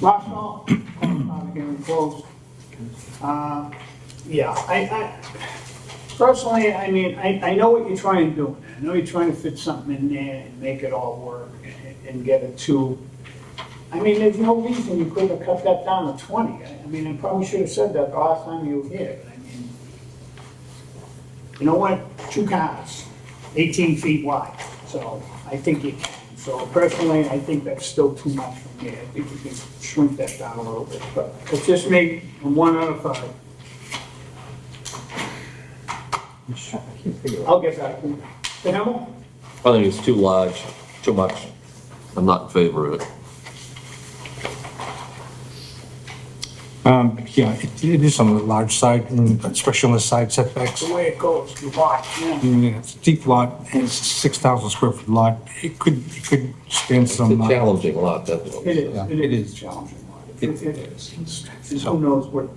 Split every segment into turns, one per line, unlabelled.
Last call, public hearing closed. Uh, Yeah, I, I, personally, I mean, I, I know what you're trying to do. I know you're trying to fit something in there and make it all work and- and get it to, I mean, there's no reason you couldn't have cut that down to 20. I I mean, I probably should have said that the last time you were here, but I mean, you know what, two cars, 18 feet wide, so I think you can. So personally, I think that's still too much for me, I think we can shrink that down a little bit, but it's just me, and one out of five. I'll get back to you. The Hamel?
I think it's too large, too much. I'm not in favor of it.
Um, yeah, it, it is on the large side, and especially on the side setbacks.
the way it goes, you watch, yeah.
I mean, It's a deep lot, and it's a six thousand square foot lot, it could, it could stand
It's a
some, uh,
challenging lot, that's what.
It
Yeah,
is, it
it
is
is.
challenging.
It-
It it is, And who knows what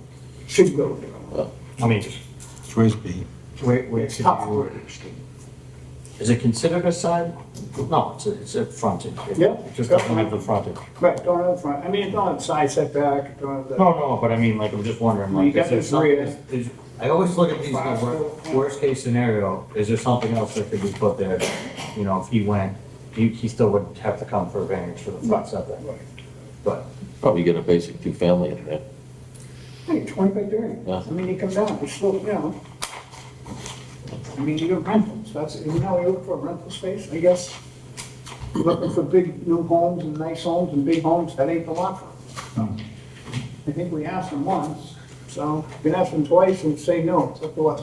should go there.
I mean, it's ways be.
Where, where
It's
could
tough
you,
for it.
is it considered a side? No, it's a, it's a frontage. It-
Yeah.
It just doesn't have the frontage.
Right, don't have front, I mean, don't have side setback, don't have the.
No, no, but I mean, like, I'm just wondering,
Well, you
like,
got
is there
this rear.
something? is- I always look at these, the wor- worst case scenario, is there something else that could be put there? You know, if he went, he, he still would have to come for a variance for the front setback,
Right.
but.
Probably get a basic two-family in there.
Hey, twenty by thirty.
Yeah.
I mean, you come down, it's still, you know. I mean, you got rentals, that's, you know, you look for a rental space, I guess. You're Looking for big new homes and nice homes and big homes, that ain't the lot for them. I think we asked them once, so we can ask them twice and say no, it's up to us.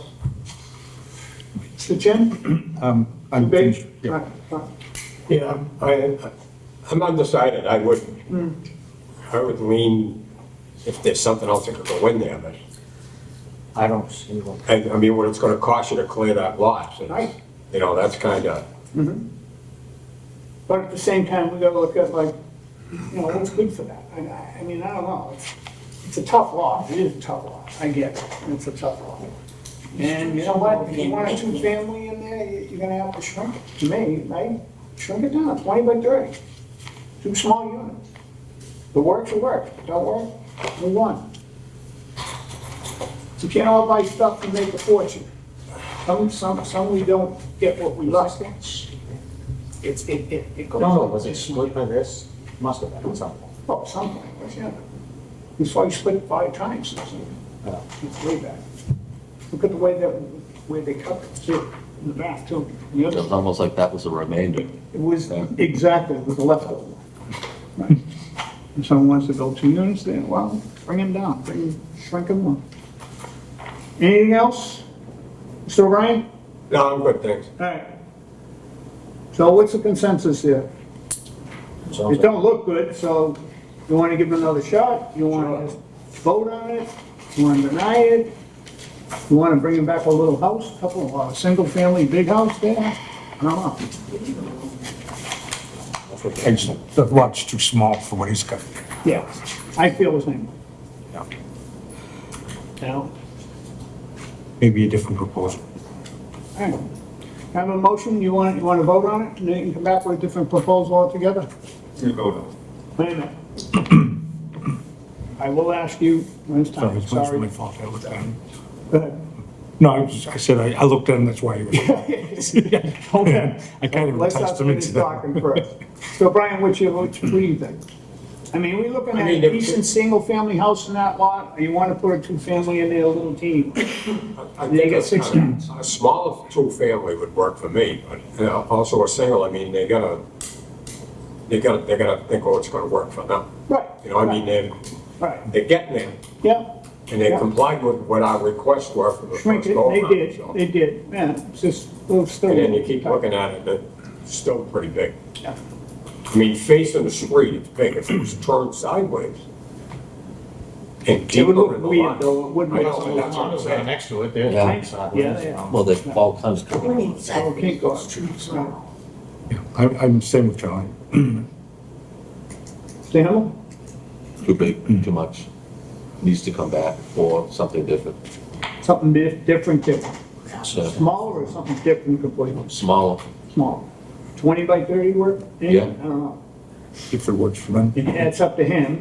So Jim,
Um,
you
I'm,
big?
yeah,
Right, right.
Yeah, I, I'm undecided, I would,
Hmm.
I would lean, if there's something else that could go in there, but,
I don't see one.
I, I mean, what it's gonna cost you to clear that lot, so,
Right.
you know, that's kinda,
But at the same time, we gotta look at like, you know, what's good for that? I- I, I mean, I don't know, it's, it's a tough lot, it is a tough lot, I get it, it's a tough lot. And you know what, if you want a two-family in there, you- you're gonna have to shrink it, to me, right? Shrink it down, twenty by thirty, two small units. The works will work, don't work, move on. You can't all buy stuff and make a fortune. Some, some, some we don't get what we lost. It's, it, it, it goes.
No, no, was it split by this? Must have been something.
Oh, something, but yeah. That's why you split it five times, it's,
Yeah.
it's way back. Look at the way that, where they cut it, too, in the back, too. The
It
other-
was almost like that was a remainder.
It was,
Yeah.
exactly, it was a leftover. Right. And someone wants to build two units there, well, bring them down, bring, shrink them up. Anything else? Mr. O'Brien?
no, I'm good, thanks.
All right. So what's the consensus here?
Sounds
It
like-
don't look good, so you wanna give it another shot, you wanna vote on it, you wanna deny it? You wanna bring him back a little house, a couple of, uh, single-family big house there? I don't know.
it's, the lot's too small for what he's got.
Yeah, I feel the same.
Yeah.
You know?
Maybe a different proposal.
All right. Have a motion, you want, you wanna vote on it, and then you can come back with a different proposal altogether? Wait a minute. I will ask you, when's
Sorry,
time,
it's not
sorry.
my fault, I looked at him.
Go ahead.
No, I was, I said, I, I looked at him, that's why he was. I kind of
Let's not
enticed him
finish
into that.
talking first. So Brian, what you, what you- what do you think? I mean, we looking
I
at
mean,
a
if-
decent single-family house in that lot, or you wanna put a two-family in there, a little teeny? one?
I
They
think
got
a-
six
a- A small two-family would work for me, but, you know, also a single, I mean, they gotta, they gotta, they gotta think, oh, it's gonna work for them.
Right.
You know, I mean, they're,
Right,
they're getting there.
yeah,
And they
Yeah.
complied with what our requests were for the
shrink
first
it,
go
they
around.
did, they did, yeah, it's just, well, it's still.
And then you keep looking at it, it's still pretty big.
Yeah.
I mean, facing the street, it's big, if it was turned sideways. And
It would
deeper
look
in the
weird,
line.
though, it would
I
look.
know, and that's what I'm saying.
Next to it, there's.
Yeah.
inside
Yeah,
ones,
yeah.
um,
Well, there's all kinds of.
So it can't Oh, go up. Right.
I, I'm same with Charlie.
Mr. Hamel?
Too big, too much. Needs to come back for something different,
Something di- different, different,
So,
smaller or something different completely?
smaller.
Small. Twenty by thirty work?
Yeah.
I don't know.
If it works for them.
It's up to him.